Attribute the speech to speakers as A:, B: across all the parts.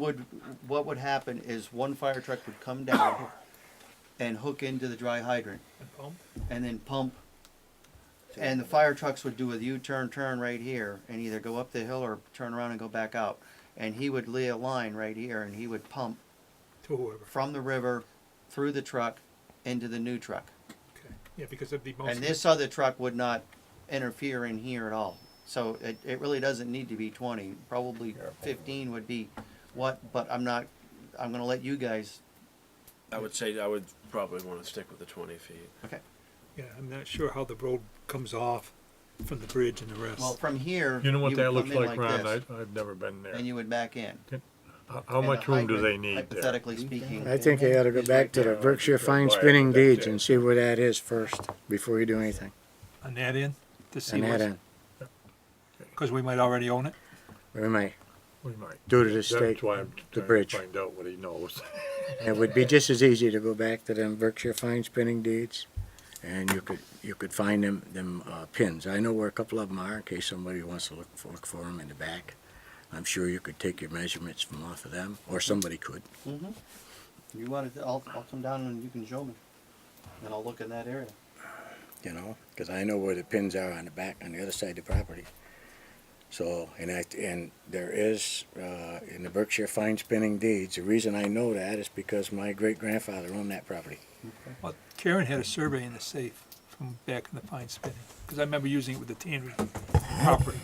A: would, what would happen is one fire truck would come down and hook into the dry hydrant
B: pump?
A: and then pump. And the fire trucks would do a U-turn, turn right here and either go up the hill or turn around and go back out. And he would lay a line right here and he would pump
B: To whoever,
A: from the river through the truck into the new truck.
B: okay, yeah, because of the most.
A: And this other truck would not interfere in here at all. So it, it really doesn't need to be twenty, probably fifteen would be what, but I'm not, I'm gonna let you guys,
C: I would say I would probably want to stick with the 20 feet.
A: okay.
B: Yeah, I'm not sure how the road comes off from the bridge and the
A: Well,
B: rest.
A: from here.
D: You know what
A: would
D: that
A: come
D: looks
A: in
D: like, Ron? I,
A: this,
D: I've never been there.
A: And you would back in.
D: How- How
A: And the
D: much room do
A: hydrant,
D: they need there?
A: Hypothetically speaking.
E: I think they ought to go
A: is right
E: back to the
A: there.
E: Berkshire fine
D: Right,
E: spinning
D: that's
E: deeds
D: it.
E: and see where that is first, before you do anything.
B: On that end, to see
E: And that uh,
B: what's,
E: end,
B: because we might already own it.
E: we may,
D: We might.
E: due to the
D: That's
E: state,
D: why I'm
E: the
D: trying to
E: bridge.
D: find out what he knows.
E: it would be just as easy to go back to them Berkshire fine spinning deeds. And you could, you could find them, them, uh, pins. I know where a couple of them are in case somebody wants to look, for- look for them in the back. I'm sure you could take your measurements from off of them, or somebody could.
A: Mhm. You want it, I'll, I'll come down and you can show me. And I'll look in that area.
E: you know, because I know where the pins are on the back, on the other side of the property. So, and I, and there is, uh, in the Berkshire fine spinning deeds, the reason I know that is because my great grandfather owned that property.
B: Well, Karen had a survey in the safe from back in the pine spinning, because I remember using it with the tannery property.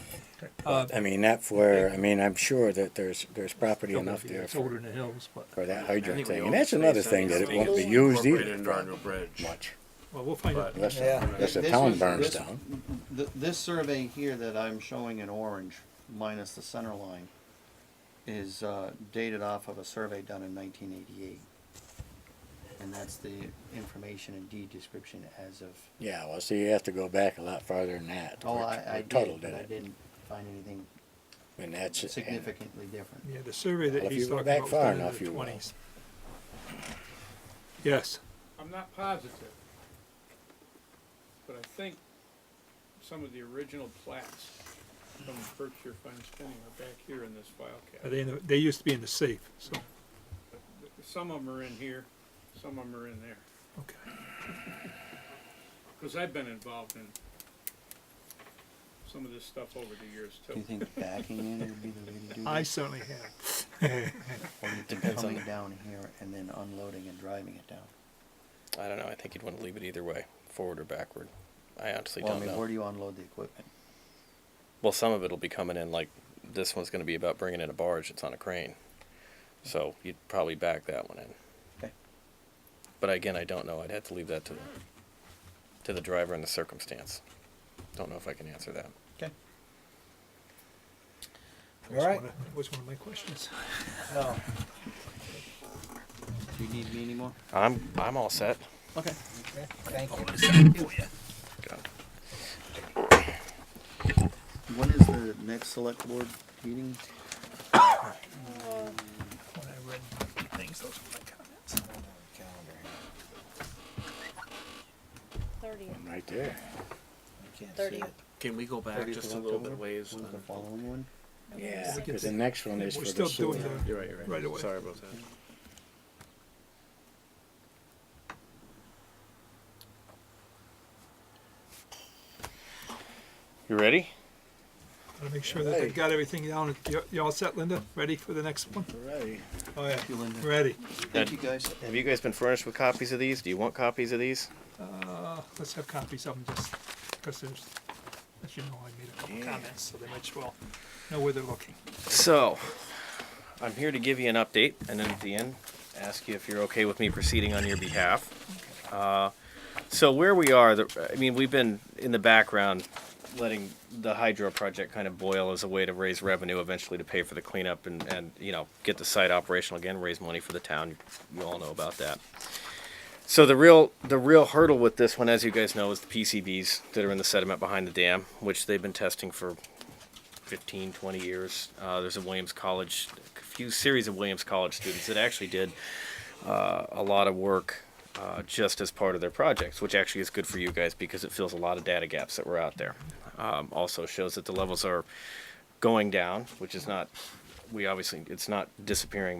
B: Uh,
E: I mean, that's where, I mean, I'm sure that there's, there's property enough there
B: It's older
E: for,
B: in the hills, but,
E: for that
C: I think
E: hydrant
C: we
E: thing,
C: own
E: and that's
C: space
E: another
C: that
E: thing
C: needs
E: that
C: to
E: it
C: be
E: won't be used
C: incorporated into our
E: either
C: new bridge.
E: much,
B: well, we'll find out.
C: But-
E: unless, unless the
A: This
E: town
A: was-
E: burns
A: this-
E: down.
A: Th- this survey here that I'm showing in orange, minus the center line, is uh, dated off of a survey done in nineteen eighty-eight. And that's the information and deed description as of,
E: Yeah, well, see, you have to go back a lot farther than that.
A: oh,
E: where-
A: I, I
E: where Tuttle
A: did,
E: did
A: but I
E: it,
A: didn't find anything
E: and that's. and-
A: significantly different.
B: Yeah, the survey that
E: Well, if
B: he's
E: you go
B: talking
E: back
B: about was
E: far
B: done in
E: enough,
B: the
E: you will.
B: twenties. Yes,
F: I'm not positive, but I think some of the original plats from Berkshire Fine Spinning are back here in this file
B: Uh,
F: cabinet.
B: they, they used to be in the safe, so,
F: Some of them are in here, some of them are in there,
B: okay.
F: because I've been involved in some of this stuff over the years
A: Do
F: too.
A: you think backing in would be the way to do
B: I
A: this?
B: certainly have.
A: Or do you think coming down here and then unloading and driving it down?
G: I don't know. I think you'd want to leave it either way, forward or backward. I honestly
A: Well, I
G: don't
A: mean,
G: know.
A: where do you unload the equipment?
G: Well, some of it'll be coming in like this one's going to be about bringing in a barge that's on a crane. So you'd probably back that one in.
A: Okay.
G: But again, I don't know. I'd have to leave that to the, to the driver and the circumstance. Don't know if I can answer that.
A: Okay.
B: All right. That was one of my questions.
A: Do you need me anymore?
G: I'm I'm all set.
A: Okay.
G: Go.
A: When is the next select board meeting?
B: When I read things, those were my comments.
H: Thirtieth,
E: Right there.
H: thirtieth.
C: Can we go back
A: 30th
C: just a
A: of
C: little bit
A: October?
C: ways?
A: When's the
C: on-
A: following one?
E: Yeah, because the next one is for
B: We're
E: the
B: still doing
E: sewer.
B: the,
C: You're right, you're right.
B: Right away.
C: Sorry about that.
G: You ready?
B: gotta make sure that they got everything down. You, you all set, Linda? Ready for the next one?
E: Right.
B: Oh, yeah.
A: Thank you, Linda.
B: Ready.
A: Thank you, guys.
G: Have you guys been furnished with copies of these? Do you want copies of these?
B: Uh, let's have copies of them just, because there's, as you know, I made a couple comments, so they might as well know where they're looking.
G: So, I'm here to give you an update, and then at the end, ask you if you're okay with me proceeding on your behalf. Uh, so where we are, the, I mean, we've been in the background letting the hydro project kind of boil as a way to raise revenue eventually to pay for the cleanup and, and you know get the site operational again, raise money for the town. You all know about that. So the real the real hurdle with this one, as you guys know, is the PCBs that are in the sediment behind the dam, which they've been testing for 15, 20 years. Uh, there's a Williams College, a few series of Williams College students that actually did uh, a lot of work uh, just as part of their projects, which actually is good for you guys because it fills a lot of data gaps that were out there. Um, also shows that the levels are going down, which is not we obviously, it's not disappearing